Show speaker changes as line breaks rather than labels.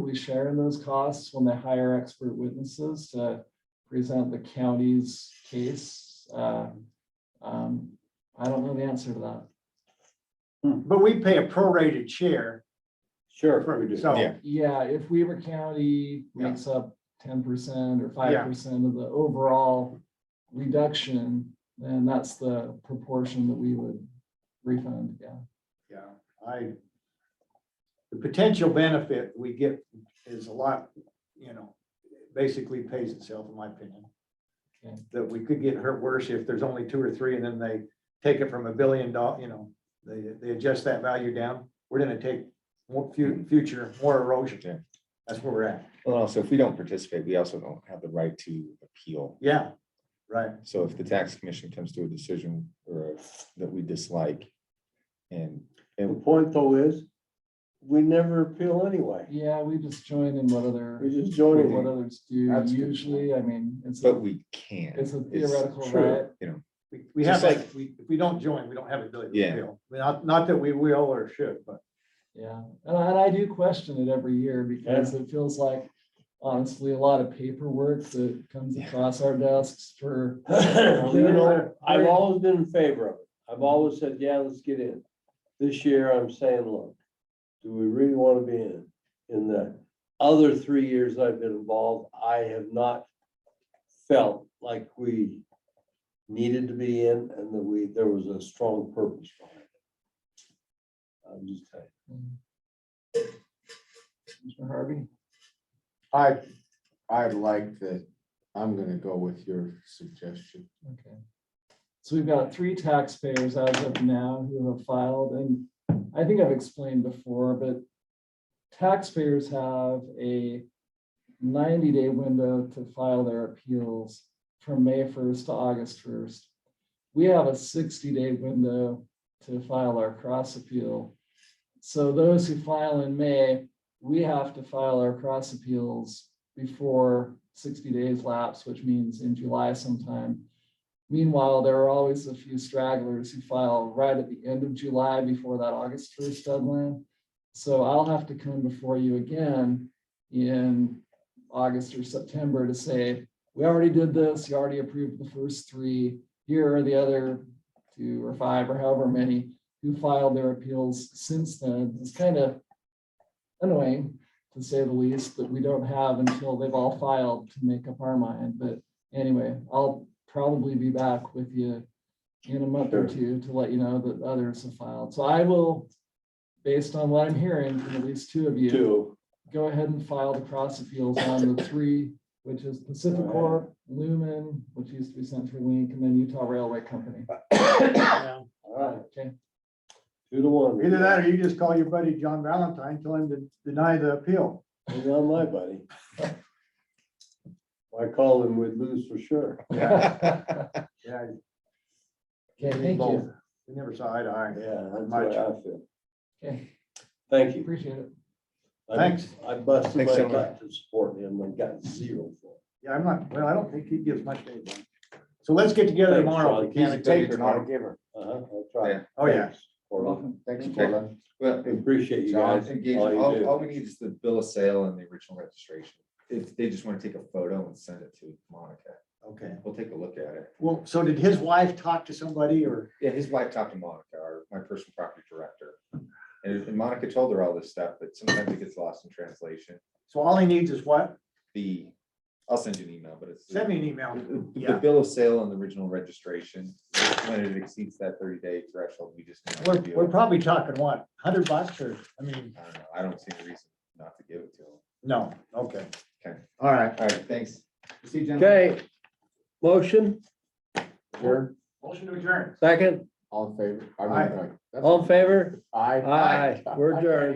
We share in those costs when they hire expert witnesses to present the county's case. Uh, um, I don't know the answer to that.
But we pay a prorated share.
Mm. Sure.
for-
we do.
So,
Yeah.
Yeah, if Weaver County makes up ten percent or five percent of the overall reduction, then that's the proportion that we would refund, yeah.
yeah, I, the potential benefit we get is a lot, you know, basically pays itself, in my opinion.
Okay.
That we could get hurt worse if there's only two or three and then they take it from a billion dollar, you know, they, they adjust that value down. We're gonna take more fu- future, more
Yeah.
erosion. That's where we're at.
Well, also, if we don't participate, we also don't have the right to appeal.
Yeah, right.
So if the tax commission comes to a decision or that we dislike and,
The
and
point though is, we never appeal anyway.
Yeah, we just join in what
We
other,
just
what
join in.
others do
That's good.
usually, I mean, it's,
but
a-
we can.
it's a theoretical
true.
right.
You know,
We, we have,
Just
that- we, if we don't join, we don't have a ability to
Yeah.
appeal. Not, not that we will or should, but
Yeah, and I, and I do question it every year because it feels like honestly, a lot of paperwork that comes
Yeah.
across our desks for.
You know, I've always been in favor of it. I've always said, yeah, let's get in. This year, I'm saying, look, do we really want to be in? In the other three years I've been involved, I have not felt like we needed to be in and that we, there was a strong purpose behind it. I'm just saying.
Mr. Harvey,
I, I like that, I'm gonna go with your suggestion.
okay. So we've got three taxpayers as of now who have filed, and I think I've explained before, but taxpayers have a ninety-day window to file their appeals from May first to August first. We have a sixty-day window to file our cross appeal. So those who file in May, we have to file our cross appeals before sixty days lapse, which means in July sometime. Meanwhile, there are always a few stragglers who file right at the end of July before that August first deadline. So I'll have to come before you again in August or September to say, we already did this, you already approved the first three. Here are the other two or five or however many who filed their appeals since then. It's kind of annoying to say the least that we don't have until they've all filed to make up our mind. But anyway, I'll probably be back with you in a month or two to let you know that others have filed. So I will, based on what I'm hearing from at least two of you
Two,
go ahead and file the cross appeals on the three, which is Pacific Corp, Lumen, which used to be CenturyLink, and then Utah Railway Company.
all right,
Okay,
two to one.
Either that or you just call your buddy John Valentine, tell him to deny the appeal.
He's not my buddy. If I call him, we'd lose for sure.
Yeah.
okay, thank you.
We never saw eye to eye.
Yeah, that's the
Much.
way I feel.
Okay,
Thank you.
appreciate it.
I-
Thanks.
I busted
Thanks,
my
gentlemen.
gut to support him and got zero for it.
Yeah, I'm not, well, I don't think he gives much. to anybody. So let's get together
Thanks,
tomorrow.
John.
if we can.
He's a
Taker, not a giver.
Uh-huh, that's right.
Yeah.
Oh, yeah.
Thanks, Corley.
Welcome.
Thanks,
Okay.
Paula.
Well,
Appreciate you
John,
guys.
engage,
all you
all,
do.
all we need is the bill of sale and the original registration. If they just want to take a photo and send it to Monica,
Okay.
we'll take a look at it.
Well, so did his wife talk to somebody or?
Yeah, his wife talked to Monica, our, my personal property director. And and Monica told her all this stuff, but sometimes it gets lost in translation.
So all he needs is what?
The, I'll send you an email, but it's.
Send me an email.
The
Yeah.
bill of sale and the original registration, when it exceeds that thirty day threshold, we just. need to
We're,
do it.
we're probably talking what, hundred bucks or, I mean,
I don't know. I don't see a reason not to give it to him.
no, okay.
All right.
All right, thanks.
See you, gentlemen.
Okay, motion,
Sure.
Motion to adjourn.
second,
All in favor? I mean,
Aye.
that's-
all in favor?
Aye.
Aye, we're adjourned.